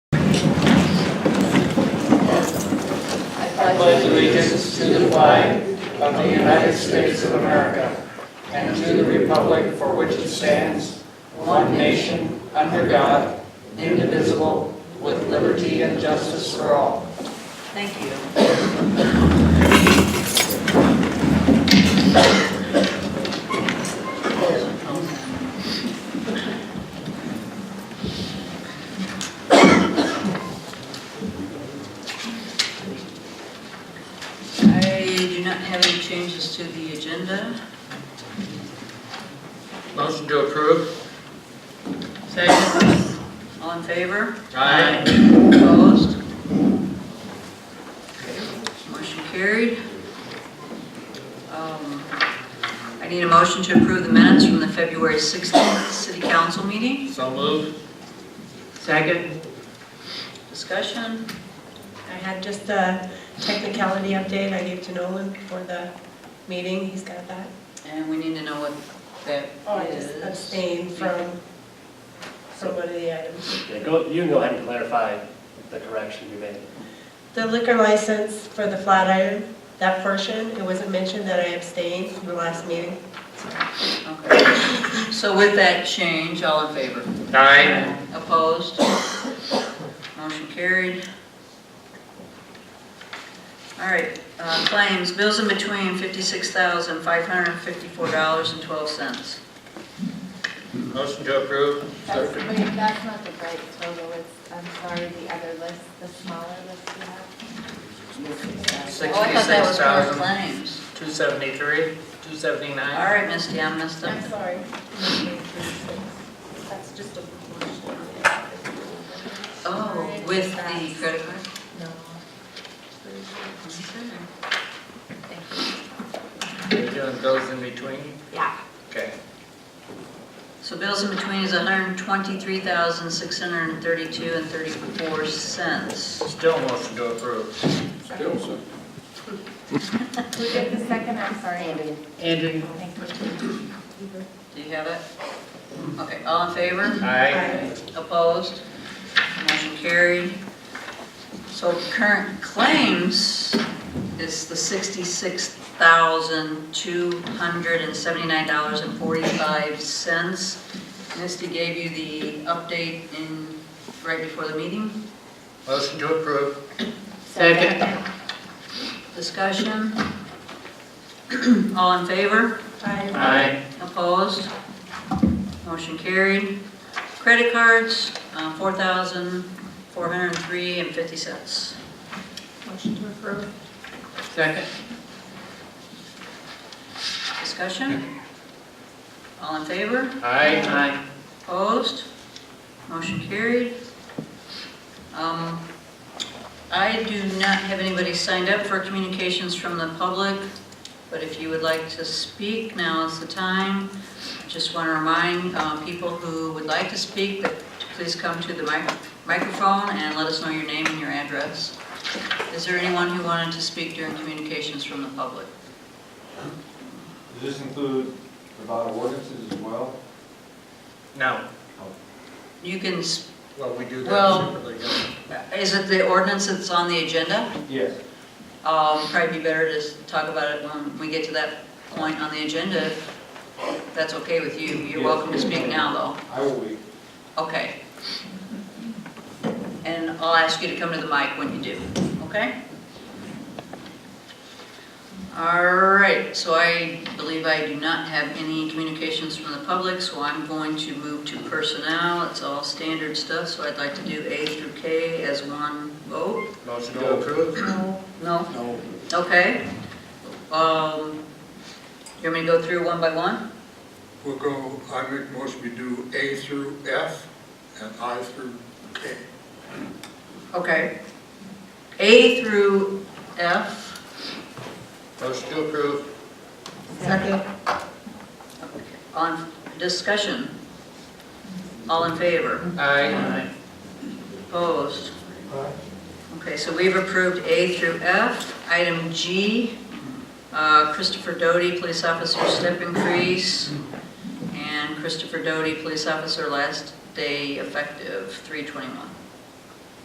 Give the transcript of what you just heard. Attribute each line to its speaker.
Speaker 1: pledge allegiance to the flag of the United States of America and to the republic for which it stands, one nation, under God, indivisible, with liberty and justice for all.
Speaker 2: Thank you. I do not have any changes to the agenda.
Speaker 3: Motion to approve?
Speaker 2: Second. All in favor?
Speaker 3: Aye.
Speaker 2: Opposed? Motion carried. Um, I need a motion to approve the minutes from the February 16th city council meeting.
Speaker 3: So move.
Speaker 4: Second?
Speaker 2: Discussion?
Speaker 5: I had just a technicality update I gave to Nolan before the meeting, he's got that.
Speaker 2: And we need to know what that
Speaker 5: Oh, I
Speaker 2: is.
Speaker 5: just abstained from, from one of the items.
Speaker 6: Yeah, go, you can go ahead and clarify the correction you made.
Speaker 5: The liquor license for the Flatiron, that portion, it wasn't mentioned that I abstained from the last meeting.
Speaker 2: Okay. So with that change, all in favor?
Speaker 3: Aye.
Speaker 2: Opposed? Motion carried. All right, uh, claims, bills in between $56,554.12.
Speaker 3: Motion to approve?
Speaker 7: That's, wait, that's not the right total, it's, I'm sorry, the other list, the smaller list you have.
Speaker 2: Oh, I thought that was for
Speaker 3: 66,273,
Speaker 2: claims.
Speaker 3: 279?
Speaker 2: All right, Misty, I messed up.
Speaker 7: I'm sorry. That's just a proportion.
Speaker 2: Oh, with the credit card?
Speaker 7: No.
Speaker 3: You're doing those in between?
Speaker 7: Yeah.
Speaker 3: Okay.
Speaker 2: So bills in between is $123,632 and 34 cents.
Speaker 3: Still motion to approve?
Speaker 7: Who did the second, I'm sorry. Andy.
Speaker 4: Andrew?
Speaker 7: Thank you.
Speaker 2: Do you have it? Okay, all in favor?
Speaker 3: Aye.
Speaker 2: Opposed? Motion carried. So current claims is the $66,279.45. Misty gave you the update in, right before the meeting.
Speaker 3: Motion to approve?
Speaker 4: Second.
Speaker 2: Discussion? All in favor?
Speaker 5: I,
Speaker 3: Aye.
Speaker 2: Opposed? Motion carried. Credit cards, uh, $4,403.50.
Speaker 7: Motion to approve.
Speaker 4: Second?
Speaker 2: Discussion? All in favor?
Speaker 3: Aye.
Speaker 4: Aye.
Speaker 2: Opposed? Motion carried. Um, I do not have anybody signed up for communications from the public, but if you would like to speak, now is the time. Just want to remind uh, people who would like to speak that to please come to the mic- microphone and let us know your name and your address. Is there anyone who wanted to speak during communications from the public?
Speaker 8: Does this include about ordinances as well?
Speaker 3: No.
Speaker 2: You can, s-
Speaker 3: Well, we do
Speaker 2: Well-
Speaker 3: that separately. don't
Speaker 2: is it the ordinance that's on the agenda?
Speaker 8: Yes.
Speaker 2: Um, Probably be better to s- talk about it when we get to that point on the agenda, if that's okay with you. You're
Speaker 8: Yes.
Speaker 2: welcome to speak now,
Speaker 8: I will wait.
Speaker 2: though. Okay. And I'll ask you to come to the mic when you do, okay? All right, so I believe I do not have any communications from the public, so I'm going to move to personnel. It's all standard stuff, so I'd like to do A through K as one vote.
Speaker 3: we? Motion to approve?
Speaker 2: No?
Speaker 8: No.
Speaker 2: Okay. Um, you want me to go through one by one?
Speaker 9: We'll go, I make most we do A through F and I through K.
Speaker 2: Okay. A through F.
Speaker 3: Motion to approve?
Speaker 5: second,
Speaker 2: On discussion. All in favor?
Speaker 3: Aye.
Speaker 2: Opposed? Okay, so we've approved A through F. Item G, uh, Christopher Doty, police officer, step increase, and Christopher Doty, police officer, last day effective, 321.